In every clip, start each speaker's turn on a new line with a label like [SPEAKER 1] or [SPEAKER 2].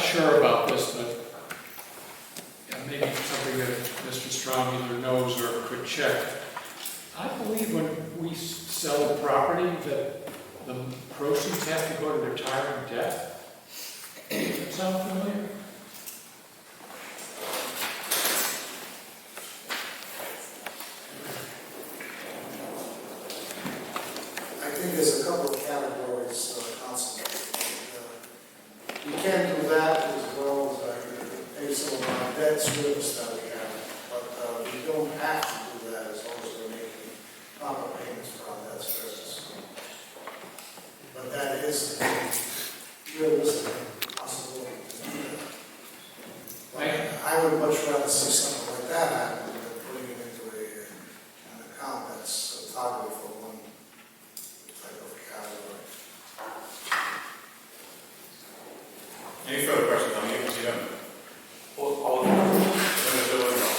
[SPEAKER 1] sure about this, but yeah, maybe something that Mr. Strong either knows or could check. I believe when we s- sell a property that the proceeds have to go to retiring debt. Does that sound familiar?
[SPEAKER 2] I think there's a couple of categories, uh, Council. Uh, You can do that as well as I can pay some of our debt service that we have, but uh, we don't have to do that as long as we're making proper payments for our debt service. But that is realistic possibility. to do that. But I would much rather see something like that happen than putting it into a, uh, an account that's targeted for one type of category.
[SPEAKER 3] Any further questions on the agency member?
[SPEAKER 4] All, all in favor?
[SPEAKER 3] Member Bill Winslow.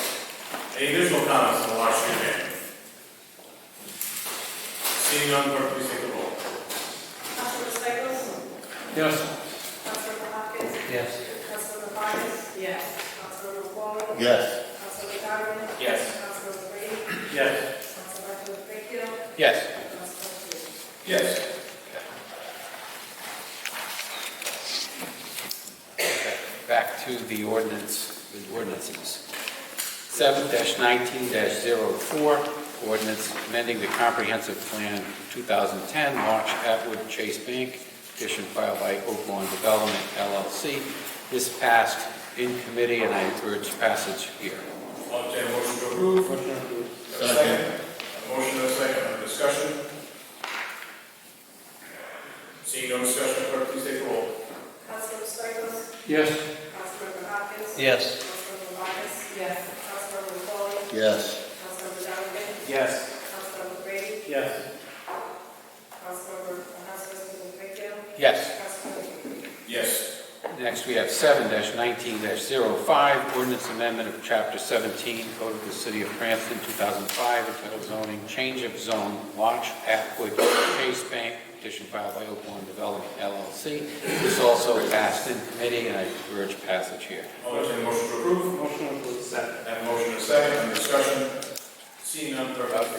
[SPEAKER 3] Any additional comments on the Water Street Bank? Seeing none, clerk, please take the roll.
[SPEAKER 5] Councilor Stichels?
[SPEAKER 1] Yes,
[SPEAKER 5] Councilor Hopkins?
[SPEAKER 4] Yes.
[SPEAKER 5] Councilor Barnes? Yes. Councilor McCollum?
[SPEAKER 6] Yes.
[SPEAKER 5] Councilor Donovan?
[SPEAKER 4] Yes.
[SPEAKER 5] Councilor Brady?
[SPEAKER 3] Yes.
[SPEAKER 5] Councilor Fickiel?
[SPEAKER 4] Yes.
[SPEAKER 5] Councilor Hughes?
[SPEAKER 3] Yes.
[SPEAKER 4] Back to the ordinance, the ordinances. Seven nineteen 4 ordinance amending the comprehensive plan two thousand ten, March Atwood Chase Bank, petition filed by Oaklawn Development LLC. This passed in committee, and I urge passage here.
[SPEAKER 3] I'll entertain a motion to approve. Have a
[SPEAKER 6] Second.
[SPEAKER 3] A Motion and a second, under discussion. Seeing no discussion, clerk, please take the roll.
[SPEAKER 5] Councilor Stichels?
[SPEAKER 1] yes.
[SPEAKER 5] Councilor Hopkins?
[SPEAKER 4] Yes.
[SPEAKER 5] Councilor Barnes? Yes. Councilor McCollum?
[SPEAKER 6] Yes.
[SPEAKER 5] Councilor Donovan?
[SPEAKER 3] Yes.
[SPEAKER 5] Councilor Brady?
[SPEAKER 3] Yes.
[SPEAKER 5] Councilor, Councilor Fickiel?
[SPEAKER 4] Yes.
[SPEAKER 5] Councilor Hughes?
[SPEAKER 3] Yes.
[SPEAKER 4] Next, we have seven nineteen 5 ordinance amendment of chapter seventeen, code of the city of Cranston, two thousand five, entitled zoning, change of zone, launch Atwood Chase Bank, petition filed by Oakland Development LLC. This also passed in committee, and I urge passage here.
[SPEAKER 3] I'll entertain a motion to approve.
[SPEAKER 7] Motion approved, second.
[SPEAKER 3] Have a motion and a second, under discussion. Seeing none, clerk, please take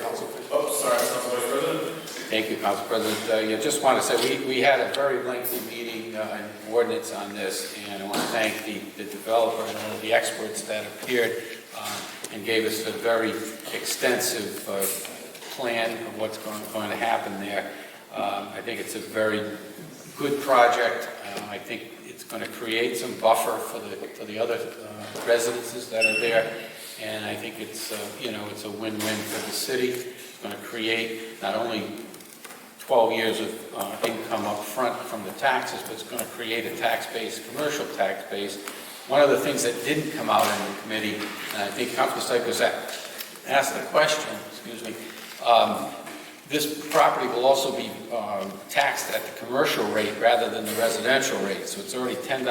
[SPEAKER 3] the roll. Oh, sorry, Council Vice President.
[SPEAKER 4] Thank you, Council President. Uh, yeah, just want to say, we, we had a very lengthy meeting uh, and ordinance on this, and I want to thank the, the developer and all the experts that appeared uh, and gave us a very extensive uh, plan of what's going, going to happen there. Um, I think it's a very good project. Uh, I think it's going to create some buffer for the, for the other uh, residences that are there. And I think it's, uh, you know, it's a win-win for the city. It's going to create not only 12 years of uh, income up front from the taxes, but it's going to create a tax base, commercial tax base. One of the things that didn't come out in the committee, and I think Council Stichels a- asked the question, excuse me, um, this property will also be um, taxed at the commercial rate rather than the residential rate, so it's already $10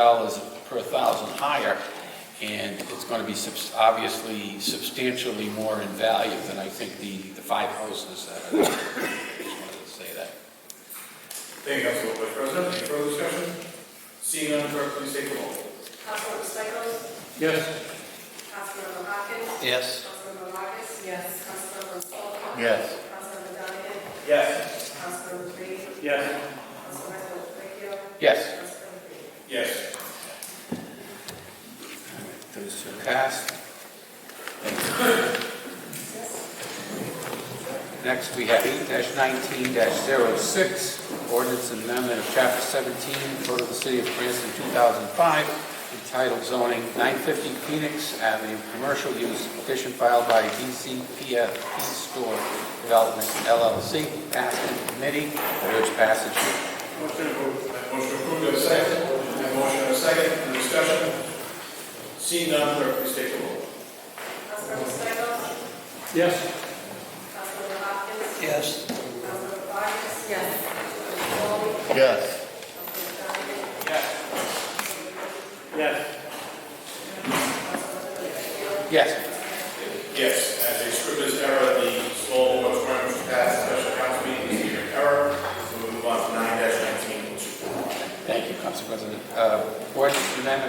[SPEAKER 4] per thousand higher, and it's going to be subs- obviously substantially more in value than I think the the five houses that are there. Just wanted to say that.
[SPEAKER 3] Thank you, Council Vice President. Any further discussion? Seeing none, clerk, please take the roll.
[SPEAKER 5] Councilor Stichels?
[SPEAKER 1] Yes.
[SPEAKER 5] Councilor Hopkins?
[SPEAKER 4] Yes.
[SPEAKER 5] Councilor Vargas? Yes. Councilor Stoll?
[SPEAKER 6] Yes.
[SPEAKER 5] Councilor Donovan?
[SPEAKER 3] Yes.
[SPEAKER 5] Councilor Brady?
[SPEAKER 7] Yes.
[SPEAKER 5] Councilor Fickiel?
[SPEAKER 4] Yes.
[SPEAKER 5] Councilor Hughes?
[SPEAKER 3] Yes.
[SPEAKER 4] Those two passed. Next, we have eight nineteen 6 ordinance amendment of chapter seventeen, code of the city of Cranston, two thousand five, entitled zoning nine fifty Phoenix Avenue, commercial use, petition filed by DCPF East Store Development LLC, passed in committee, I urge passage here.
[SPEAKER 7] Motion approved.
[SPEAKER 3] That motion approved, Do I have a second. That motion and a second, under discussion. Seeing none, clerk, please take the roll.
[SPEAKER 5] Councilor Stichels?
[SPEAKER 1] Yes.
[SPEAKER 5] Councilor Hopkins?
[SPEAKER 6] Yes.
[SPEAKER 5] Councilor Vargas? Yes. Councilor Stoll?
[SPEAKER 6] Yes.
[SPEAKER 5] Councilor Donovan?
[SPEAKER 7] Yes.
[SPEAKER 4] Yes.
[SPEAKER 3] Yes, as a scrivener's error, the small moratorium was passed, special council meeting is here in error. So we move on to nine nineteen, oh
[SPEAKER 4] Thank you, Council President. Uh, Ordinance amendment